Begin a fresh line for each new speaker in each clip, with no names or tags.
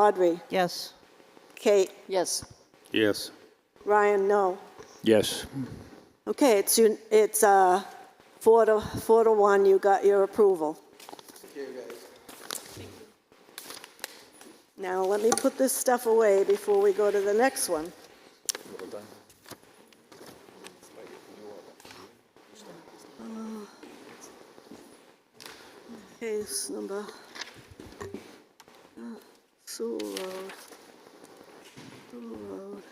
Audrey,
Yes.
Kate,
Yes.
Yes.
Ryan, no.
Yes.
Okay, it's, un- it's uh, four to, four to one, you got your approval. Now, let me put this stuff away before we go to the next one. Uh, Case number, Sewell Road, Sewell Road,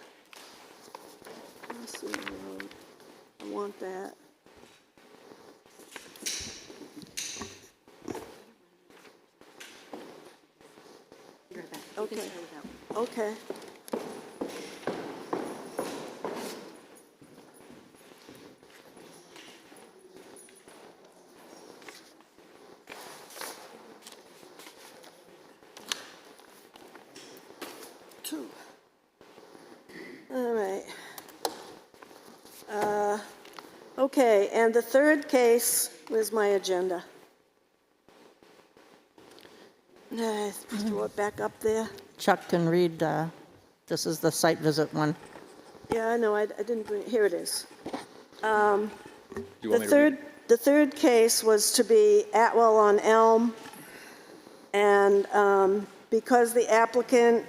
Sewell Road. uh, I want that. Okay, okay. Two. All right. Uh, Okay, and the third case, where's my agenda? Nah, Throw it back up there.
Chuck can read, uh, this is the site visit one.
Yeah, I know, I I didn't bring, here it is. Um,
Do you
The
want me to read?
third, the third case was to be Atwell on Elm, and um, because the applicant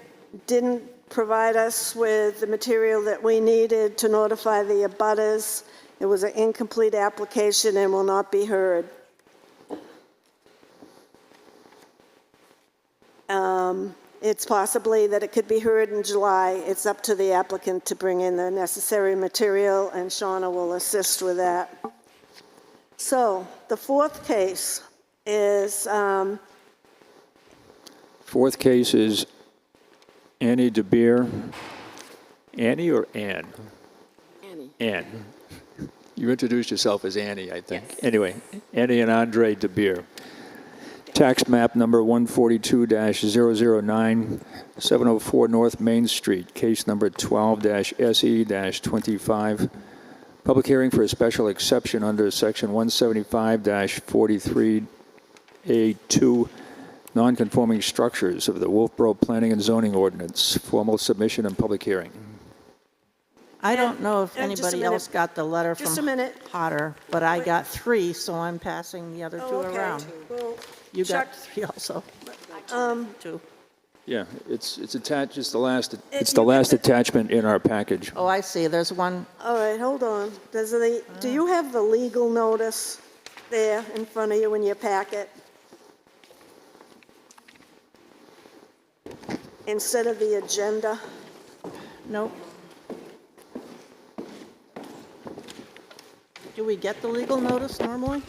didn't provide us with the material that we needed to notify the abutters, it was an incomplete application and will not be heard. Um, It's possibly that it could be heard in July. It's up to the applicant to bring in the necessary material, and Shauna will assist with that. So the fourth case is, um,
Fourth case is Annie DeBeer. Annie or Ann?
Annie.
Ann.
You introduced yourself as Annie, I think.
Anyway, Annie and Andre DeBeer. Tax map number 142-009, 704 North Main Street, case number 12-SE-25. E Public hearing for a special exception under section 175-43A2, nonconforming structures of the Wolfboro Planning and Zoning Ordinance. Formal submission and public hearing.
I don't know if
And Uh, just a
anybody
minute.
else got the letter from.
Just a minute.
Potter, but I got three, so I'm passing the other two
oh, okay.
around.
Well,
You got
Chuck- Um,
three also. Two.
Yeah, it's, it's attached, it's the last,
It's
it's
the
the
you- last
last attachment in our package.
Oh, I see, there's one,
All right, hold on. Does the, do you have the legal notice there in front of you in your packet? Instead of the agenda?
nope. Do we get the legal notice normally?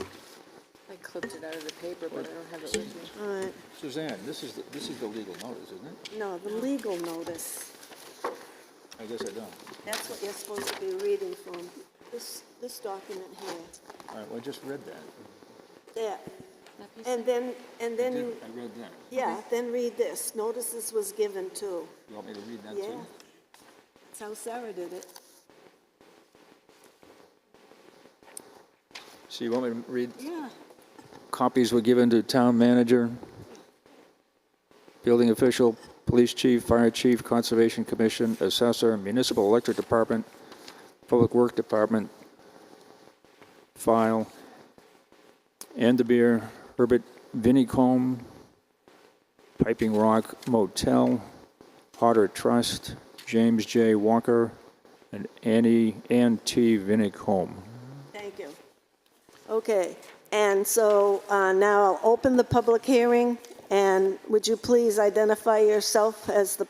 I clipped it out of the paper, but I don't have it with me.
All right,
Suzanne, this is, the- this is the legal notice, isn't it?
no, the legal notice.
I guess I don't.
That's what you're supposed to be reading from, this, this document here.
All right, well, I just read that.
There. And then, and then you,
I read that.
yeah, then read this. Notices was given too.
You want me to read that
Yeah.
too?
That's how Sarah did it.
So you want me to read?
Yeah.
Copies were given to town manager, building official, police chief, fire chief, conservation commission, assessor, municipal electric department, public work department, file, Andebeer, Herbert Vinicombe, Piping Rock Motel, Potter Trust, James J. Walker, and Annie, Ann T. Vinicombe.
Thank you. Okay, and so uh, now I'll open the public hearing, and would you please identify yourself as the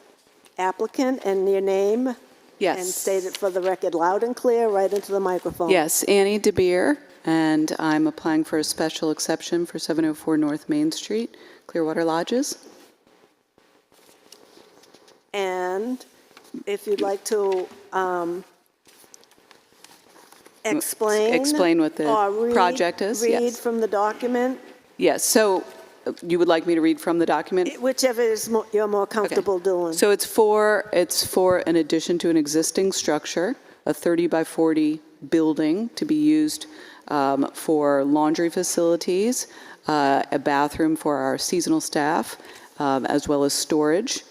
applicant and your name? And state it for the record loud and clear, right into the microphone.
Yes, Annie DeBeer, and I'm applying for a special exception for 704 North Main Street, Clearwater Lodges.
And if you'd like to um, explain.
Mm, explain what the
or read-
project is, yes.
Read from the document,
Yes, so uh, you would like me to read from the document?
whichever is mo- you're more
Okay.
comfortable doing.
So it's for, it's for an addition to an existing structure, a 30 by 40 building to be used um, for laundry facilities, uh, a bathroom for our seasonal staff, um, as well as storage.